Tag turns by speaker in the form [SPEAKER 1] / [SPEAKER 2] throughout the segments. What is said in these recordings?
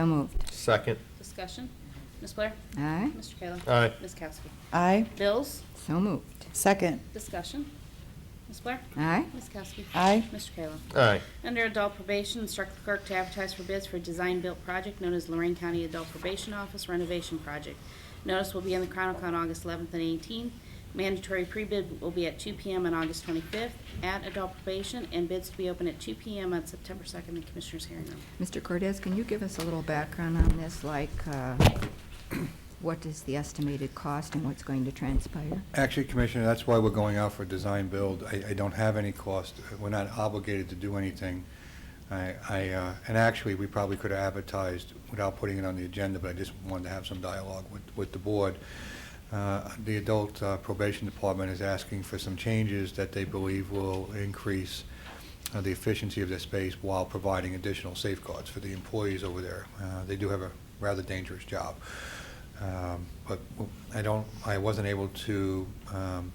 [SPEAKER 1] So moved.
[SPEAKER 2] Second.
[SPEAKER 3] Discussion. Ms. Blair?
[SPEAKER 1] Aye.
[SPEAKER 3] Mr. Kayla?
[SPEAKER 2] Aye.
[SPEAKER 3] Ms. Kowski?
[SPEAKER 4] Aye.
[SPEAKER 3] Bills?
[SPEAKER 1] So moved.
[SPEAKER 4] Second.
[SPEAKER 3] Discussion. Ms. Blair?
[SPEAKER 1] Aye.
[SPEAKER 3] Ms. Kowski?
[SPEAKER 4] Aye.
[SPEAKER 3] Mr. Kayla?
[SPEAKER 2] Aye.
[SPEAKER 3] Under adult probation, instruct the clerk to advertise for bids for a design-built project known as Lorraine County Adult Probation Office Renovation Project. Notice will be in the Chronicle on August 11th and 18th. Mandatory pre-bid will be at 2 PM on August 25th at adult probation, and bids to be open at 2 PM on September 2nd in Commissioners' hearing room.
[SPEAKER 1] Mr. Cortez, can you give us a little background on this, like uh, what is the estimated cost and what's going to transpire?
[SPEAKER 5] Actually, Commissioner, that's why we're going out for design build. I, I don't have any cost. We're not obligated to do anything. I, I, uh, and actually, we probably could have advertised without putting it on the agenda, but I just wanted to have some dialogue with, with the board. Uh, The Adult uh, Probation Department is asking for some changes that they believe will increase uh, the efficiency of their space while providing additional safeguards for the employees over there. Uh, They do have a rather dangerous job. Um, But w- I don't, I wasn't able to um,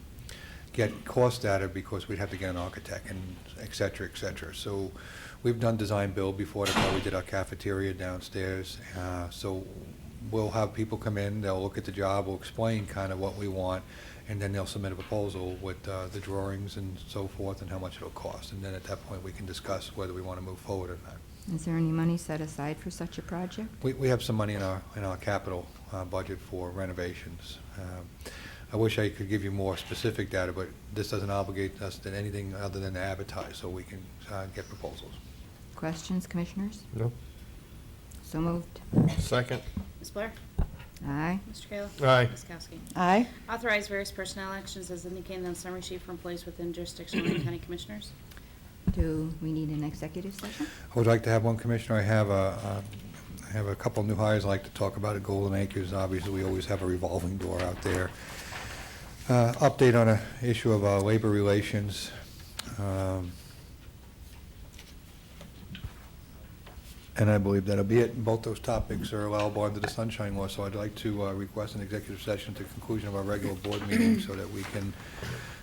[SPEAKER 5] get cost data because we'd have to get an architect and et cetera, et cetera. So we've done design build before, that's how we did our cafeteria downstairs. Uh, So we'll have people come in, they'll look at the job, we'll explain kind of what we want, and then they'll submit a proposal with uh, the drawings and so forth and how much it'll cost. And then at that point, we can discuss whether we want to move forward or not.
[SPEAKER 1] Is there any money set aside for such a project?
[SPEAKER 5] We, we have some money in our, in our capital uh, budget for renovations. Um, I wish I could give you more specific data, but this doesn't obligate us to anything other than to advertise, so we can uh, get proposals.
[SPEAKER 1] Questions, commissioners?
[SPEAKER 2] No.
[SPEAKER 1] So moved.
[SPEAKER 2] Second.
[SPEAKER 3] Ms. Blair?
[SPEAKER 1] Aye.
[SPEAKER 3] Mr. Kayla?
[SPEAKER 2] Aye.
[SPEAKER 3] Ms. Kowski?
[SPEAKER 4] Aye.
[SPEAKER 3] Authorize various personnel actions as indicated on summary sheet for employees within jurisdiction of Lorraine County Commissioners.
[SPEAKER 1] Do we need an executive session?
[SPEAKER 5] I would like to have one, Commissioner. I have a, uh, I have a couple new hires I'd like to talk about at Golden Acres. Obviously, we always have a revolving door out there. Uh, Update on an issue of uh, labor relations. Um, And I believe that'll be it. Both those topics are allowable under the Sunshine Law, so I'd like to uh, request an executive session at the conclusion of our regular board meeting so that we can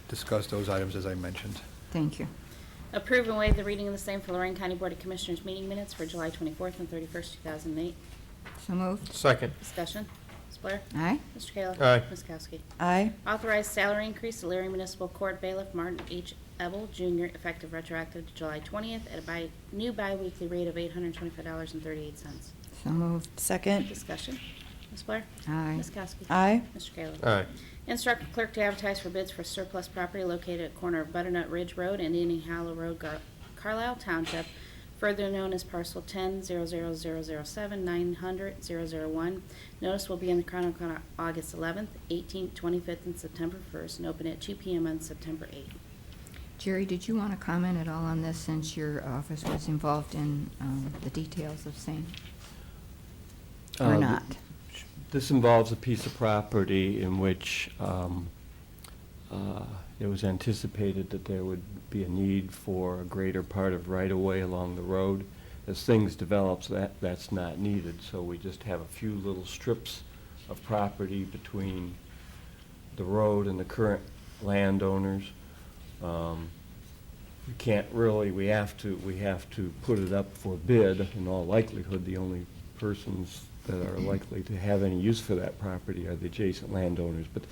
[SPEAKER 5] discuss those items as I mentioned.
[SPEAKER 1] Thank you.
[SPEAKER 3] Approve and waive the reading of the same for Lorraine County Board of Commissioners meeting minutes for July 24th and 31st, 2008.
[SPEAKER 1] So moved.
[SPEAKER 2] Second.
[SPEAKER 3] Discussion. Ms. Blair?
[SPEAKER 1] Aye.
[SPEAKER 3] Mr. Kayla?
[SPEAKER 2] Aye.
[SPEAKER 3] Ms. Kowski?
[SPEAKER 4] Aye.
[SPEAKER 3] Authorize salary increase to Larry Municipal Court Bailiff Martin H. Ebel Jr. effective retroactive to July 20th at a bi- new biweekly rate of $825.38.
[SPEAKER 1] So moved.
[SPEAKER 4] Second.
[SPEAKER 3] Discussion. Ms. Blair?
[SPEAKER 1] Aye.
[SPEAKER 3] Ms. Kowski?
[SPEAKER 4] Aye.
[SPEAKER 3] Mr. Kayla?
[SPEAKER 2] Aye.
[SPEAKER 3] Instruct the clerk to advertise for bids for surplus property located at corner of Butternut Ridge Road and Indian Hollow Road, Gar- Carlisle Township, further known as parcel 10-00007-900-001. Notice will be in the Chronicle on August 11th, 18th, 25th, and September 1st, and open at 2 PM on September 8th.
[SPEAKER 1] Jerry, did you want to comment at all on this since your office was involved in um, the details of same? Or
[SPEAKER 6] Uh,
[SPEAKER 1] not?
[SPEAKER 6] This involves a piece of property in which um, uh, it was anticipated that there would be a need for a greater part of right-of-way along the road. As things develop, that, that's not needed, so we just have a few little strips of property between the road and the current landowners. Um, We can't really, we have to, we have to put it up for bid. In all likelihood, the only persons that are likely to have any use for that property are the adjacent landowners. But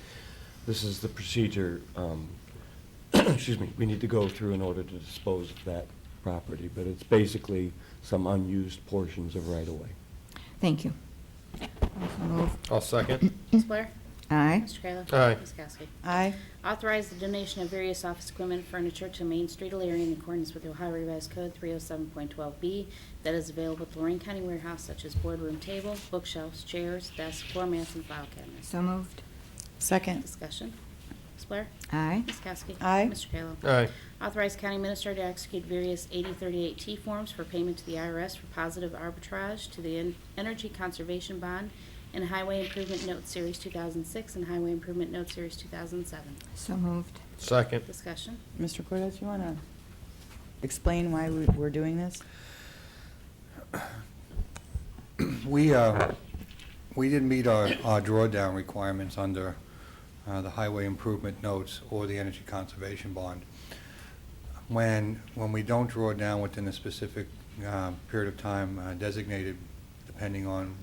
[SPEAKER 6] this is the procedure, um, excuse me, we need to go through in order to dispose of that property. But it's basically some unused portions of right-of-way.
[SPEAKER 1] Thank you. So moved.
[SPEAKER 2] I'll second.
[SPEAKER 3] Ms. Blair?
[SPEAKER 1] Aye.
[SPEAKER 3] Mr. Kayla?
[SPEAKER 2] Aye.
[SPEAKER 3] Ms. Kowski?
[SPEAKER 4] Aye.
[SPEAKER 3] Authorize the donation of various office equipment and furniture to Main Street Illyria in accordance with Ohio Revised Code 307.12B that is available at the Lorraine County Warehouse such as boardroom table, bookshelves, chairs, desks, floor mats, and file cabinets.
[SPEAKER 1] So moved.
[SPEAKER 4] Second.
[SPEAKER 3] Discussion. Ms. Blair?
[SPEAKER 1] Aye.
[SPEAKER 3] Ms. Kowski?
[SPEAKER 4] Aye.
[SPEAKER 3] Mr. Kayla?
[SPEAKER 2] Aye.
[SPEAKER 3] Authorize County Administrator to execute various 8038T forms for payment to the IRS for positive arbitrage to the En- Energy Conservation Bond and Highway Improvement Note Series 2006 and Highway Improvement Note Series 2007.
[SPEAKER 1] So moved.
[SPEAKER 2] Second.
[SPEAKER 3] Discussion.
[SPEAKER 4] Mr. Cortez, you want to explain why we- we're doing this?
[SPEAKER 5] We, uh, we didn't meet our our drawdown requirements under uh, the highway improvement notes or the energy conservation bond. When, when we don't draw down within a specific uh, period of time uh, designated, the depending on